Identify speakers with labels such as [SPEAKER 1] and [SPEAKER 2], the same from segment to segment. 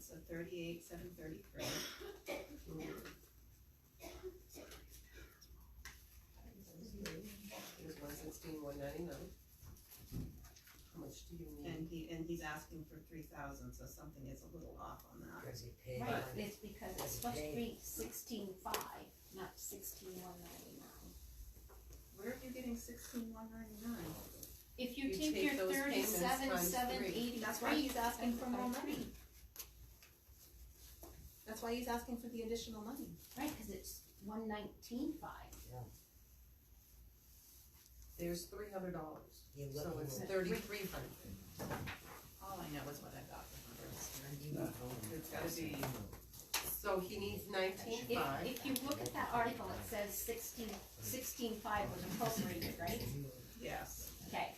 [SPEAKER 1] so thirty-eight, seven thirty-three.
[SPEAKER 2] There's one sixteen, one ninety-nine. How much do you need?
[SPEAKER 1] And he, and he's asking for three thousand, so something is a little off on that.
[SPEAKER 3] Cause he paid
[SPEAKER 4] Right,
[SPEAKER 3] on
[SPEAKER 4] it's because it's supposed to be sixteen five, not sixteen one ninety-nine.
[SPEAKER 1] Where are you getting sixteen one ninety-nine?
[SPEAKER 4] If you
[SPEAKER 1] You
[SPEAKER 4] take
[SPEAKER 1] take
[SPEAKER 4] your
[SPEAKER 1] those payments
[SPEAKER 4] thirty-seven,
[SPEAKER 1] times
[SPEAKER 4] seven
[SPEAKER 1] three.
[SPEAKER 4] eighty-three.
[SPEAKER 1] That's why he's asking for more money. That's why he's asking for the additional money.
[SPEAKER 4] Right, cause it's one nineteen five.
[SPEAKER 2] There's three hundred dollars,
[SPEAKER 3] You're
[SPEAKER 2] so it's
[SPEAKER 3] looking at,
[SPEAKER 2] thirty-three hundred.
[SPEAKER 1] All I know is what I got from others.
[SPEAKER 3] you need home.
[SPEAKER 2] It's gotta be, so he needs nineteen
[SPEAKER 4] If,
[SPEAKER 2] five.
[SPEAKER 4] if you look at that article, it says sixteen, sixteen five was appropriated, right?
[SPEAKER 1] Yes.
[SPEAKER 4] Okay,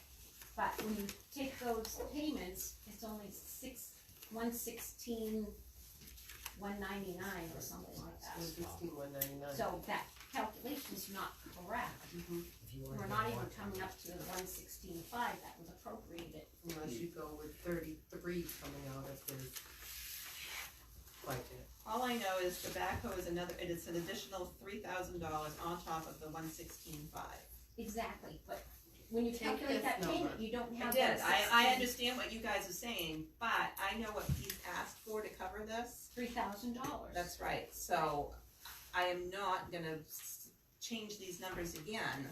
[SPEAKER 4] but when you take those payments, it's only six, one sixteen, one ninety-nine or something like
[SPEAKER 2] One
[SPEAKER 4] that.
[SPEAKER 2] sixteen, one ninety-nine.
[SPEAKER 4] So that calculation's not correct.
[SPEAKER 3] If you
[SPEAKER 4] We're
[SPEAKER 3] wanna
[SPEAKER 4] not
[SPEAKER 3] go
[SPEAKER 4] even
[SPEAKER 3] on.
[SPEAKER 4] coming up to the one sixteen five that was appropriated.
[SPEAKER 2] Unless you go with thirty-three coming out of his budget.
[SPEAKER 1] All I know is tobacco is another, it is an additional three thousand dollars on top of the one sixteen five.
[SPEAKER 4] Exactly, but when you
[SPEAKER 2] Take this
[SPEAKER 4] calculate that payment,
[SPEAKER 2] number.
[SPEAKER 4] you don't
[SPEAKER 1] I
[SPEAKER 4] have
[SPEAKER 1] did,
[SPEAKER 4] that
[SPEAKER 1] I, I
[SPEAKER 4] sixteen,
[SPEAKER 1] understand what you guys are saying, but I know what he's asked for to cover this.
[SPEAKER 4] three thousand dollars.
[SPEAKER 1] That's right, so I am not gonna s- change these numbers again,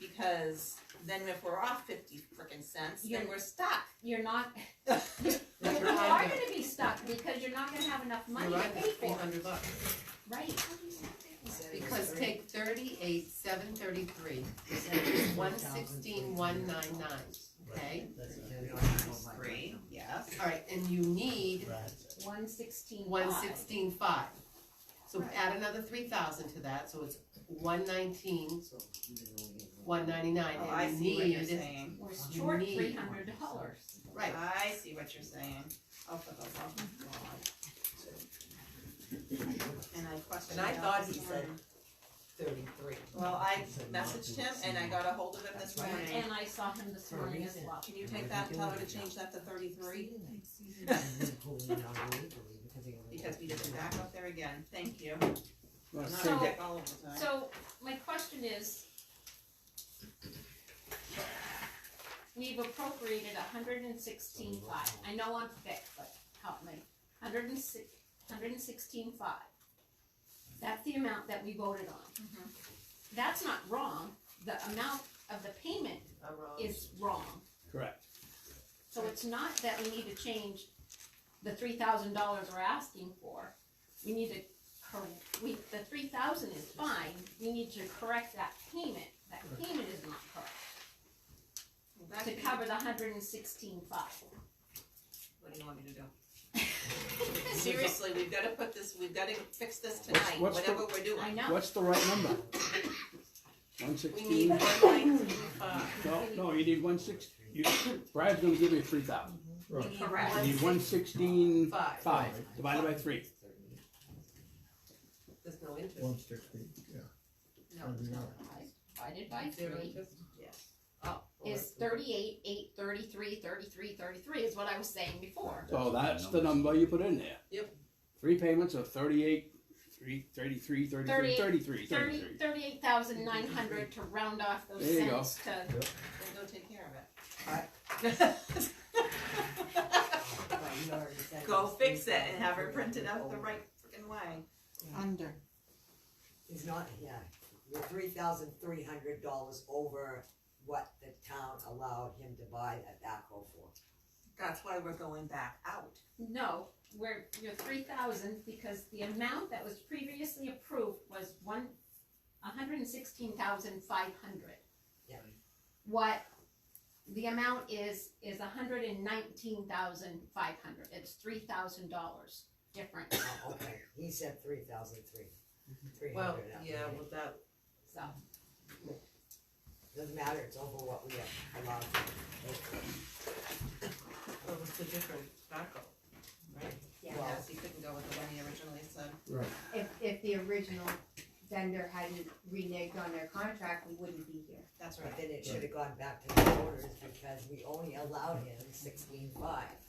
[SPEAKER 1] because then if we're off fifty frickin' cents, then
[SPEAKER 4] You're-
[SPEAKER 1] we're stuck.
[SPEAKER 4] You're not, you
[SPEAKER 2] That's
[SPEAKER 4] are
[SPEAKER 2] right.
[SPEAKER 4] gonna be stuck because you're not gonna have enough money to pay
[SPEAKER 2] Three
[SPEAKER 4] for, it.
[SPEAKER 2] hundred bucks.
[SPEAKER 4] right?
[SPEAKER 2] Because take thirty-eight, seven thirty-three, one sixteen, one nine nine, okay?
[SPEAKER 3] That's a-
[SPEAKER 1] Three, yes,
[SPEAKER 2] Alright, and you need
[SPEAKER 3] Right.
[SPEAKER 4] One sixteen five.
[SPEAKER 2] one sixteen five. So
[SPEAKER 1] Right.
[SPEAKER 2] add another three thousand to that, so it's one nineteen,
[SPEAKER 3] So you didn't really get Oh one.
[SPEAKER 2] one ninety-nine,
[SPEAKER 1] oh, I
[SPEAKER 2] and
[SPEAKER 1] see
[SPEAKER 2] you
[SPEAKER 1] what you're
[SPEAKER 2] need,
[SPEAKER 1] saying,
[SPEAKER 4] We're
[SPEAKER 2] You
[SPEAKER 4] short
[SPEAKER 2] need-
[SPEAKER 4] three hundred dollars.
[SPEAKER 2] right,
[SPEAKER 1] I see what you're saying, oh, for the love of God. And I questioned.
[SPEAKER 2] And I
[SPEAKER 1] that
[SPEAKER 2] thought
[SPEAKER 1] this
[SPEAKER 2] he said-
[SPEAKER 1] morning.
[SPEAKER 2] thirty-three.
[SPEAKER 1] Well, I messaged him and I got a hold of him this
[SPEAKER 3] That's right.
[SPEAKER 1] morning,
[SPEAKER 4] And I saw him this
[SPEAKER 3] For a
[SPEAKER 4] morning as
[SPEAKER 3] reason.
[SPEAKER 4] well.
[SPEAKER 1] can you take that, and tell her to change that to thirty-three? Because we did it back up there again, thank you, I'm not a
[SPEAKER 4] So-
[SPEAKER 1] dick all of the time.
[SPEAKER 4] So, my question is, we've appropriated a hundred and sixteen five, I know I'm thick, but help me, hundred and six, hundred and sixteen five. That's the amount that we voted on.
[SPEAKER 1] Mhm.
[SPEAKER 4] That's not wrong, the amount of the payment
[SPEAKER 2] I wrote-
[SPEAKER 4] is wrong,
[SPEAKER 5] Correct.
[SPEAKER 4] so it's not that we need to change the three thousand dollars we're asking for. We need to correct, we, the three thousand is fine, we need to correct that payment, that payment is not correct,
[SPEAKER 1] Well, that
[SPEAKER 4] to
[SPEAKER 1] could be-
[SPEAKER 4] cover the hundred and sixteen five.
[SPEAKER 1] What do you want me to do? Seriously, we've gotta put this, we've gotta fix this tonight,
[SPEAKER 5] What's- what's the-
[SPEAKER 1] whatever we're
[SPEAKER 4] I
[SPEAKER 1] doing.
[SPEAKER 4] know,
[SPEAKER 5] What's the right number?
[SPEAKER 1] We
[SPEAKER 5] One
[SPEAKER 1] need
[SPEAKER 5] sixteen?
[SPEAKER 1] one nineteen five.
[SPEAKER 5] No, no, you need one six, you, Brad's gonna give you three thousand.
[SPEAKER 1] We need one-
[SPEAKER 5] You need one sixteen
[SPEAKER 2] Five.
[SPEAKER 5] five divided by three.
[SPEAKER 2] There's no interest.
[SPEAKER 6] One sixty, yeah.
[SPEAKER 1] No, there's no-
[SPEAKER 4] divided by
[SPEAKER 2] Zero
[SPEAKER 4] three
[SPEAKER 2] interest.
[SPEAKER 1] yes.
[SPEAKER 2] Oh.
[SPEAKER 4] is thirty-eight, eight, thirty-three, thirty-three, thirty-three is what I was saying before.
[SPEAKER 5] So that's the number you put in there.
[SPEAKER 2] Yep.
[SPEAKER 5] Three payments of thirty-eight, three, thirty-three, thirty-three,
[SPEAKER 4] 38,
[SPEAKER 5] thirty-three,
[SPEAKER 4] Thirty,
[SPEAKER 5] thirty-three.
[SPEAKER 4] thirty-eight thousand nine hundred to round off those
[SPEAKER 5] There you go.
[SPEAKER 4] cents to,
[SPEAKER 1] Then go take care of it.
[SPEAKER 2] Alright.
[SPEAKER 1] Go fix it and have her print it out the right frickin' way.
[SPEAKER 7] Under.
[SPEAKER 3] It's not, yeah, you're three thousand three hundred dollars over what the town allowed him to buy that backhoe for.
[SPEAKER 1] That's why we're going back out.
[SPEAKER 4] No, we're, you're three thousand, because the amount that was previously approved was one, hundred and sixteen thousand five hundred.
[SPEAKER 3] Yeah.
[SPEAKER 4] What the amount is, is hundred and nineteen thousand five hundred, it's three thousand dollars different,
[SPEAKER 3] Oh, okay, he said three thousand three, three
[SPEAKER 2] Well,
[SPEAKER 3] hundred.
[SPEAKER 2] yeah, well, that,
[SPEAKER 4] so.
[SPEAKER 3] Doesn't matter, it's over what we have allowed.
[SPEAKER 2] well, it's a different backhoe, right?
[SPEAKER 7] Yeah,
[SPEAKER 1] Yes, you couldn't go with the one he originally said.
[SPEAKER 6] Right.
[SPEAKER 7] if, if the original vendor hadn't reneged on their contract, we wouldn't be here.
[SPEAKER 1] That's right.
[SPEAKER 3] But then it should have gone back to the voters because we only allowed him sixteen five.